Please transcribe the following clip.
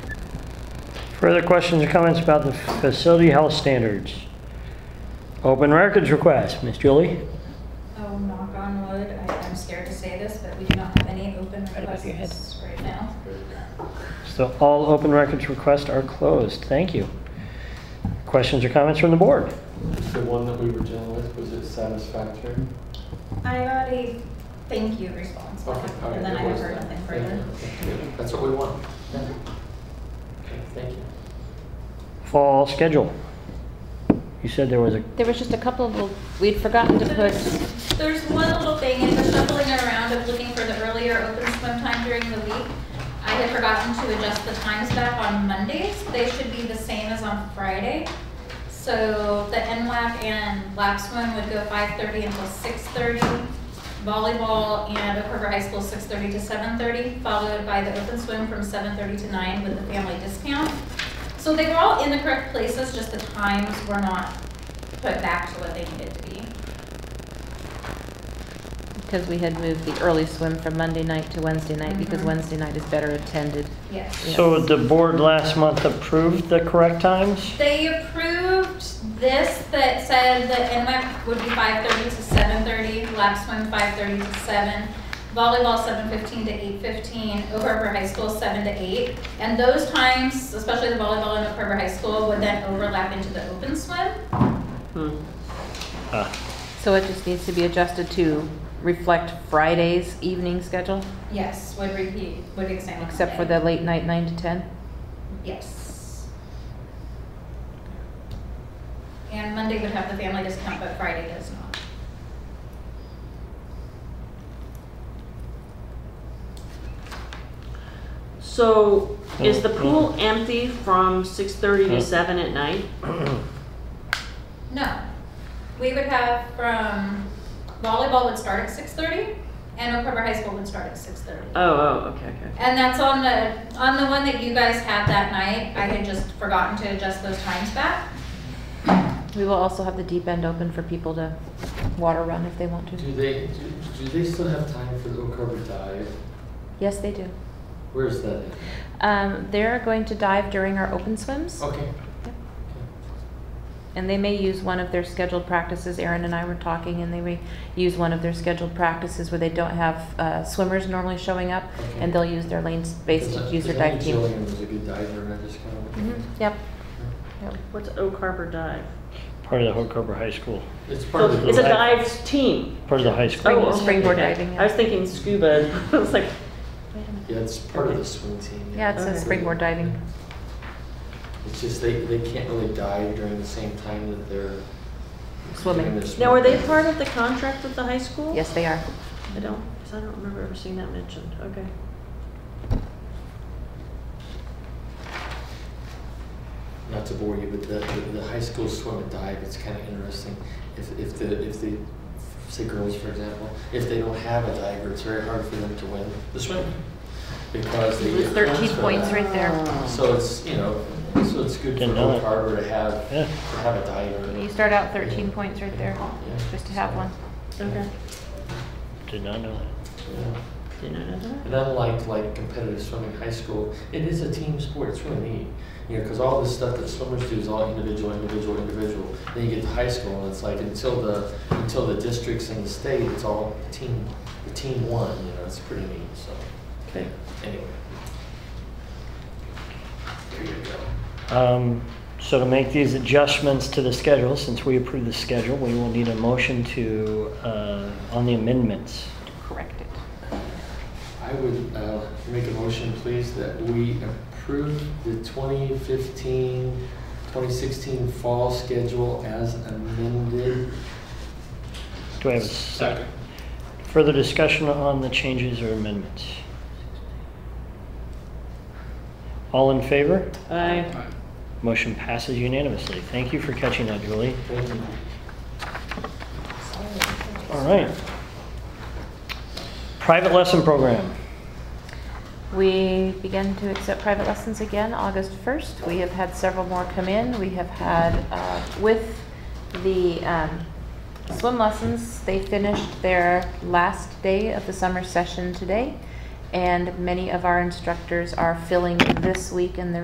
Further questions or comments about the facility health standards? Open records request, Miss Julie? Oh, knock on wood, I, I'm scared to say this, but we do not have any open Right above your head. requests right now. So all open records requests are closed. Thank you. Questions or comments from the board? The one that we were dealing with, was it satisfactory? I got a thank you response, Okay, all right, and then I it have was heard that. nothing Yeah, further. okay, good. That's what we want. Okay, Thank you. Fall schedule. You said there was a, There was just a couple of, we'd forgotten to put, There's one little thing, in the shuffling around of looking for the earlier open swim time during the week. I had forgotten to adjust the times back on Mondays. They should be the same as on Friday. So the NLAP and lap swim would go five thirty until six thirty. Volleyball and Oak River High School, six thirty to seven thirty, followed by the open swim from seven thirty to nine with the family discount. So they were all in the correct places, just the times were not put back to what they needed to be. because we had moved the early swim from Monday night to Wednesday night, because Mhm. Wednesday night is better attended. Yes. so the board last month approved the correct times? They approved this that said that NWAC would be five thirty to seven thirty, lap swim five thirty to seven, volleyball seven fifteen to eight fifteen, Oak Harbor High School seven to eight. And those times, especially the volleyball and Oak Harbor High School, would then overlap into the open swim. Ah, So it just needs to be adjusted to reflect Friday's evening schedule, Yes, would repeat, would examine. except for the late night nine to ten. Yes. And Monday would have the family discount, but Friday does not. So is the pool empty from six thirty to seven at night? No. We would have from volleyball would start at six thirty and Oak Harbor High School would start at six thirty. Oh, oh, okay, okay. And that's on the, on the one that you guys had that night. I had just forgotten to adjust those times back. We will also have the deep end open for people to water run if they want to. Do they, do- do they still have time for the Oak Harbor dive? Yes, they do. Where's that at? Um, they're going to dive during our open swims, Okay. Yep. Okay. and they may use one of their scheduled practices. Erin and I were talking, and they may use one of their scheduled practices where they don't have uh, swimmers normally showing up, and they'll use their lane space to Because I- use their because I knew dive team. Jillian was a good diver and I just kind of. Mhm, Yep. Yep. What's Oak Harbor Dive? Part of the Hook Harbor High School, Mm-hmm. It's part So of the. it's a dive. dive team. part of the high Oh, school. Spring- okay, springboard okay. diving, yeah. I was thinking scuba. I was like, Wait a minute. Yeah, it's part of the swim team. Yeah, it says Okay. springboard diving. It's just they, they can't really dive during the same time that they're. Swimming. doing their swim now are they practice. part of the contract with the high school? Yes, they are. I don't, 'cause I don't remember ever seeing that mentioned. Okay. Not to bore you, but the, the, the high school swim and dive, it's kind of interesting. If, if the, if the, say girls, for example, if they don't have a diver, it's very hard for them to win the swim. Because they You lose get 13 for points that. right there. So it's, you know, so it's good for Didn't know Oak it. Harbor to have, Yeah. to have a diver. You start out 13 points right there, Yeah. just to have one. Okay. Did not know that. Yeah. Didn't know that. And unlike like competitive swimming in high school, it is a team sport. It's really neat. You know, because all this stuff that swimmers do is all individual, individual, individual. Then you get to high school, and it's like until the until the districts and the state, it's all team. The team won. You know, it's pretty neat. So Okay. anyway, there you go. Um, So to make these adjustments to the schedule, since we approved the schedule, we will need a motion to, uh, on the amendments. Correct it. I would uh, make a motion, please, that we approve the 2015, 2016 fall schedule as amended. Do I have a second? Further discussion on the changes or amendments? All in favor? I, Motion passes unanimously. Thank you for catching that, Julie. Thank you. All right. Private lesson program. We begin to accept private lessons again August 1st. We have had several more come in. We have had, uh, with the um, swim lessons, they finished their last day of the summer session today, and many of our instructors are filling this week and the